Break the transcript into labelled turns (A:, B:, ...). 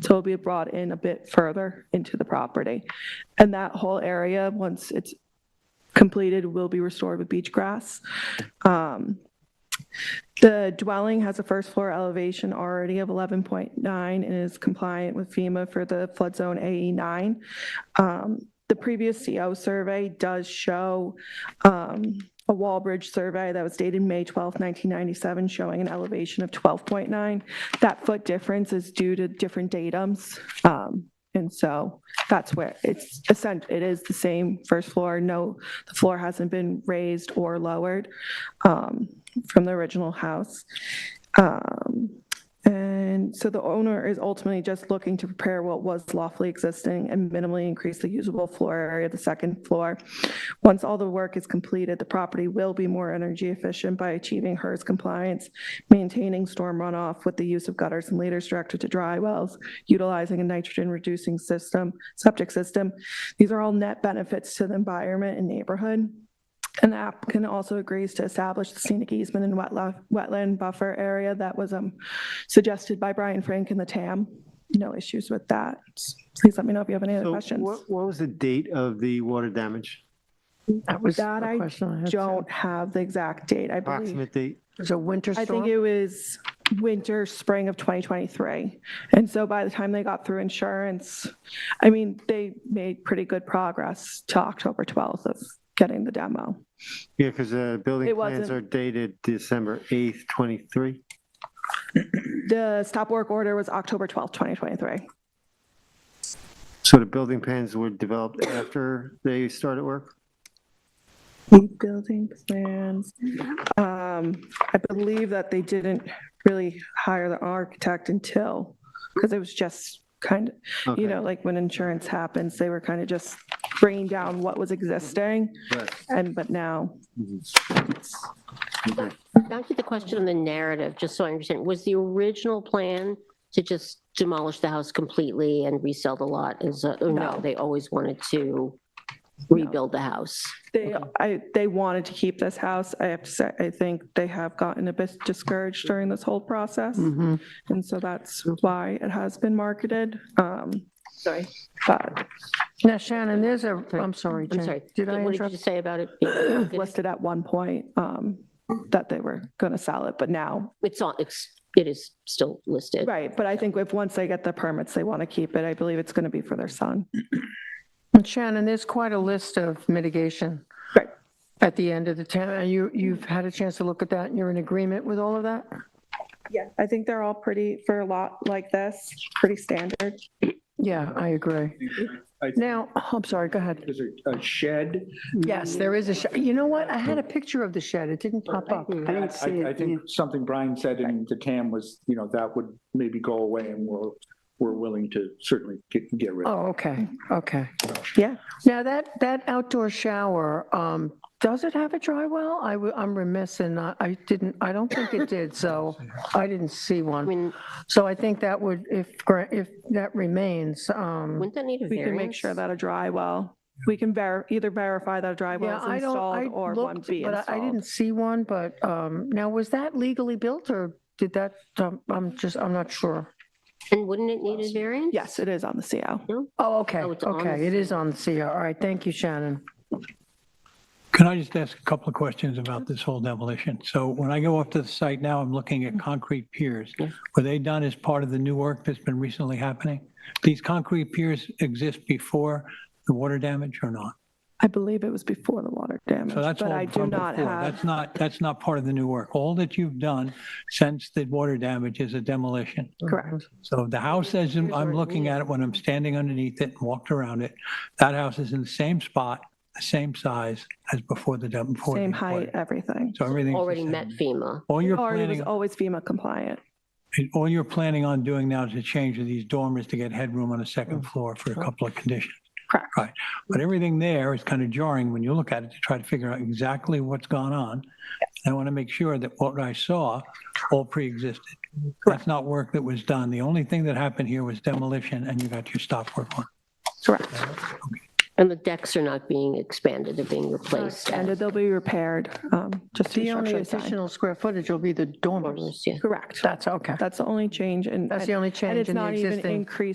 A: So it'll be brought in a bit further into the property. And that whole area, once it's completed, will be restored with beach grass. Um, The dwelling has a first floor elevation already of 11.9 and is compliant with FEMA for the flood zone AE9. Um, The previous CO survey does show um, a wall bridge survey that was dated May 12, 1997, showing an elevation of 12.9. That foot difference is due to different datums. um, And so that's where it's, essen- it is the same first floor. No, the floor hasn't been raised or lowered um, from the original house. Um, And so the owner is ultimately just looking to prepare what was lawfully existing and minimally increase the usable floor area of the second floor. Once all the work is completed, the property will be more energy efficient by achieving HERS compliance, maintaining storm runoff with the use of gutters and leaders directed to dry wells, utilizing a nitrogen-reducing system, septic system. These are all net benefits to the environment and neighborhood. And the applicant also agrees to establish the scenic easement and wetla- wetland buffer area that was um, suggested by Brian Frank and the TAM. No issues with that. Please let me know if you have any other
B: So What,
A: questions.
B: what was the date of the water damage?
C: That was
A: That I
C: a question I had. too.
A: Don't have the exact date, I believe.
B: Approximate date?
C: It was a winter
A: I think
C: storm.
A: it was winter, spring of 2023. And so by the time they got through insurance, I mean, they made pretty good progress to October 12th of getting the demo.
B: Yeah, because the building
A: It
B: plans
A: wasn't-
B: are dated December 8th, 23.
A: The stop work order was October 12th, 2023.
B: So the building plans were developed after they started work?
A: Building plans. Um, I believe that they didn't really hire the architect until, because it was just kind of,
B: Okay,
A: you know, like when insurance happens, they were kind of just bringing down what was existing.
B: right.
A: And, but now,
B: Okay.
D: Back to the question on the narrative, just so I understand, was the original plan to just demolish the house completely and resell the lot? Is, uh, oh,
A: No.
D: no, they always wanted to rebuild the house.
A: they, I, they wanted to keep this house. I have to say, I think they have gotten a bit discouraged during this whole process.
C: Mhm.
A: And so that's why it has been marketed. Um, Sorry. But
C: Now Shannon, there's a, I'm sorry,
D: I'm
C: Jen.
D: sorry.
C: Did I
D: What did
C: interrupt?
D: you say about it? being-
A: listed at one point um, that they were going to sell it, but now,
D: It's on, it's, it is still listed.
A: right, but I think if, once they get the permits, they want to keep it. I believe it's going to be for their son.
C: And Shannon, there's quite a list of mitigation
A: Right.
C: at the end of the town. And you, you've had a chance to look at that and you're in agreement with all of that?
A: Yeah. I think they're all pretty, for a lot like this, pretty standard.
C: Yeah, I agree.
E: I-
C: Now, I'm sorry, go ahead.
E: There's a- a shed.
C: Yes, there is a shed. You know what? I had a picture of the shed. It didn't pop up.
E: I didn't
F: see it,
E: I think something Brian said in the TAM was, you know, that would maybe go away and we're, we're willing to certainly get, get rid of.
C: Oh, okay, okay.
A: Yeah.
C: Now, that, that outdoor shower, um, does it have a dry well? I, w- I'm remiss and not, I didn't, I don't think it did, so I didn't see
D: I
C: one.
D: mean,
C: So I think that would, if, gra- if that remains, um,
D: wouldn't that need a
A: We
D: variance?
A: can make sure that a dry well, we can ver, either verify that a dry
C: yeah,
A: well
C: I
A: is
C: don't, I
A: installed or one
C: looked,
A: be
C: but I- I didn't
A: installed.
C: see one, but, um, now, was that legally built or did that, um, I'm just, I'm not sure.
D: And wouldn't it need a variance?
A: Yes, it is on the CO.
C: Oh, okay,
D: Oh, it's on the
C: okay, it is on the CR. All right, thank you, Shannon.
G: Can I just ask a couple of questions about this whole demolition? So when I go off to the site now, I'm looking at concrete piers.
D: Yeah.
G: Were they done as part of the new work that's been recently happening? These concrete piers exist before the water damage or not?
A: I believe it was before the water damage,
G: So that's
A: but
G: all
A: I do
G: from
A: not
G: before.
A: have,
G: That's not, that's not part of the new work. All that you've done since the water damage is a demolition.
A: correct.
G: So the house, as I'm- I'm looking at it, when I'm standing underneath it and walked around it, that house is in the same spot, the same size as before the dam. before the
A: Same
G: water
A: height,
G: damage.
A: everything.
G: So everything's the
D: Already met
G: same.
D: FEMA.
G: All you're
A: Or it was
G: planning,
A: always FEMA compliant.
G: all you're planning on doing now is to change these dormers to get headroom on the second floor for a couple of conditions.
A: Correct.
G: Right. But everything there is kind of jarring when you look at it to try to figure out exactly what's gone on. I want to make sure that what I saw all pre-existed. That's not work that was done. The only thing that happened here was demolition and you got your stop work on.
A: Correct.
D: And the decks are not being expanded, they're being replaced.
A: And they'll be repaired, um, just to
C: The
A: the
C: only
A: structure design.
C: additional square footage will be the dormers.
D: Yeah.
A: Correct.
C: That's okay.
A: That's the only change and.
C: That's the only change in the
A: And it's not even
C: existing.
A: increased